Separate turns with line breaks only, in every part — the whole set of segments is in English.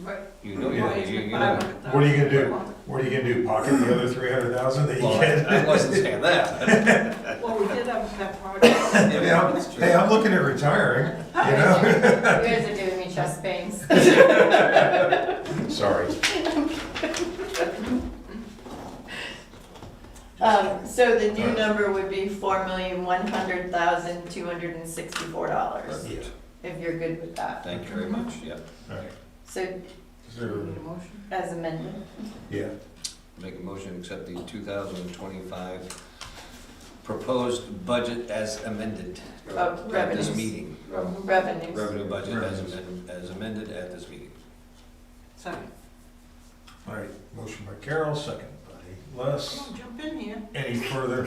Right.
You know,
Well,
you,
it's-
you, you
but I
know.
want the
What are you gonna do?
thousand.
What are you gonna do, pocket the other three hundred thousand that you
Well, I I
get?
wasn't saying that.
Well, we did have that project.
but-
Hey, I'm- Hey, I'm looking at retiring, you know?
You guys are doing me chest pains.
Sorry.
Um, so the new number would be four million, one hundred thousand, two hundred and sixty-four dollars,
Yeah.
if you're good with that.
Thank you very much, yeah.
So
So,
as amended,
Yeah,
Make a motion to accept the two thousand twenty-five proposed budget as amended.
Oh,
At this
revenues.
meeting,
revenues.
revenue budget as
Revenues.
amended, as amended at this meeting.
Second.
all right, motion by Carol, second by Les.
Come on, jump in here.
Any further?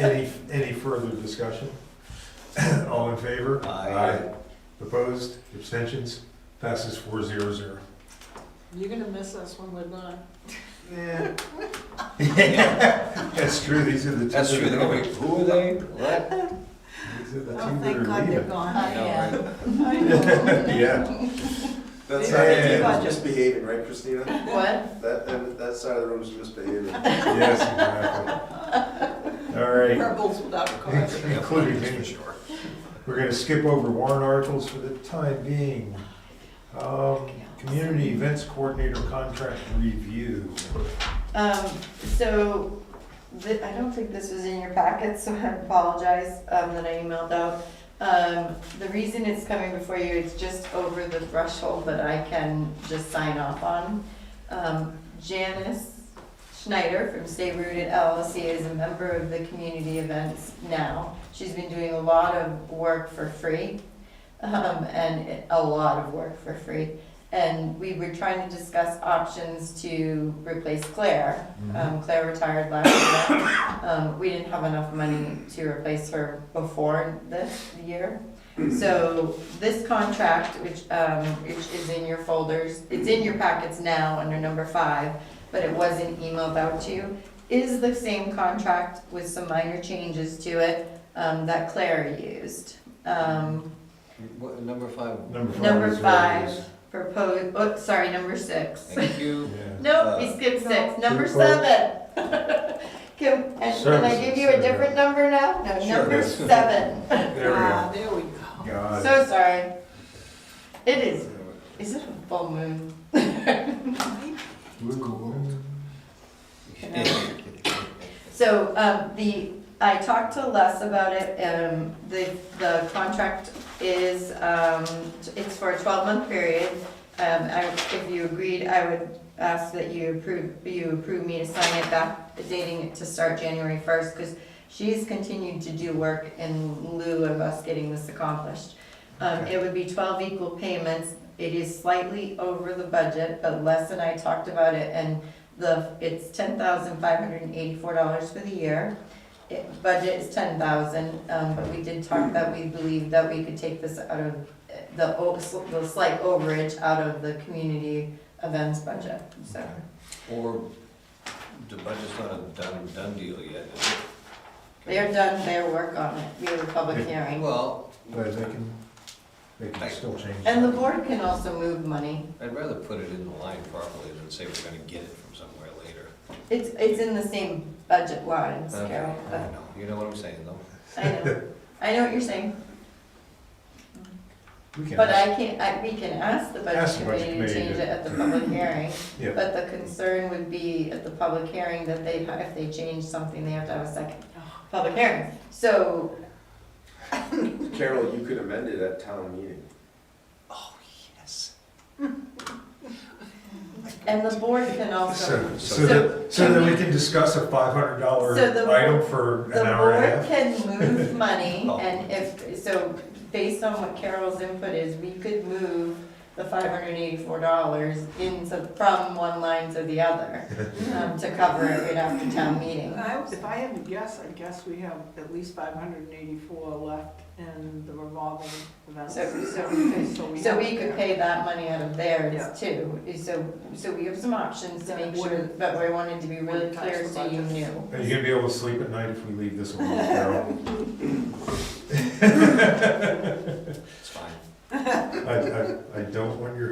Any, any further discussion? All in favor?
Aye.
Opposed, abstentions, passes four zero zero.
You're gonna miss us when we're gone.
That's true, these are the two.
That's true,
that
they're
are
going,
going.
who are they? What?
These are the
Oh,
two that
thank
are
God they're
leaving.
gone.
I know, right?
I know.
Yeah.
That
Maybe
side
we
of
do
the room
budget.
is misbehaving, right, Christina?
What?
That, that, that side of the room is misbehaving.
Yes, exactly. All right,
Rebels without a cause.
in- including me.
Sure.
We're gonna skip over warrant articles for the time being. Um, Community Events Coordinator Contract Review.
Um, so, thi- I don't think this was in your packet, so I apologize, um, that I emailed out. Um, the reason it's coming before you, it's just over the threshold that I can just sign off on. Um, Janice Schneider from Stay Rooted LLC is a member of the community events now. She's been doing a lot of work for free, um, and it- a lot of work for free. And we were trying to discuss options to replace Claire.
Mm-hmm.
Um, Claire retired last year. Um, we didn't have enough money to replace her before this year. So this contract, which, um, which is in your folders, it's in your packets now under number five, but it wasn't emailed out to you, is the same contract with some minor changes to it, um, that Claire used. Um,
What, number five?
Number five.
number
is what it
five,
is.
proposed, oh, sorry, number six.
Thank you.
Yeah.
Nope, we skipped six, number
Two quotes.
seven. Can, and can I give you a different number now? No,
Sure.
number seven.
There we go.
Ah, there we go.
God.
So sorry. It is, is it a full moon? So, um, the, I talked to Les about it, um, the, the contract is, um, it's for a twelve-month period. Um, I, if you agreed, I would ask that you approve, you approve me to sign it back, dating it to start January first, because she's continued to do work in lieu of us getting this accomplished. Um, it would be twelve equal payments, it is slightly over the budget, but Les and I talked about it, and the, it's ten thousand five hundred and eighty-four dollars for the year. It, budget is ten thousand, um, but we did talk that we believe that we could take this out of, uh, the, o- the slight overage out of the community events budget, so.
Or the budget's not a done, done deal yet, is it?
They're done their work on it, we have a public hearing.
Well,
But they can, they can still change.
And the
that.
board can also move money,
I'd rather put it in the line properly than say we're gonna get it from somewhere later.
it's, it's in the same budget lines,
Okay,
Carol,
I
but,
know. You know what I'm saying, though?
I know, I know what you're saying,
We can
but
ask-
I can't, I, we can ask the
Ask
budget
the budget
committee to
committee
change
to-
it at the public hearing.
Yeah,
But the concern would be at the public hearing that they, if they change something, they have to have a second public hearing. So,
Carol, you could amend it at town meeting.
Oh, yes.
and the board can also,
so, so that, so that we can discuss a five hundred dollar
So the-
item for
the
an hour and a
board
half. Oh.
can move money and if, so based on what Carol's input is, we could move the five hundred and eighty-four dollars into, from one line to the other, um, to cover it right after town meeting.
And I- If I had to guess, I guess we have at least five hundred and eighty-four left in the revolving events.
So- so-
we
So
have-
we could pay that money out of
Yeah.
theirs too, so, so we have some options to make sure, but we wanted to be really
Wouldn't touch
clear
the
so you
budget.
knew.
Are you gonna be able to sleep at night if we leave this alone, Carol?
It's fine.
I, I, I don't want your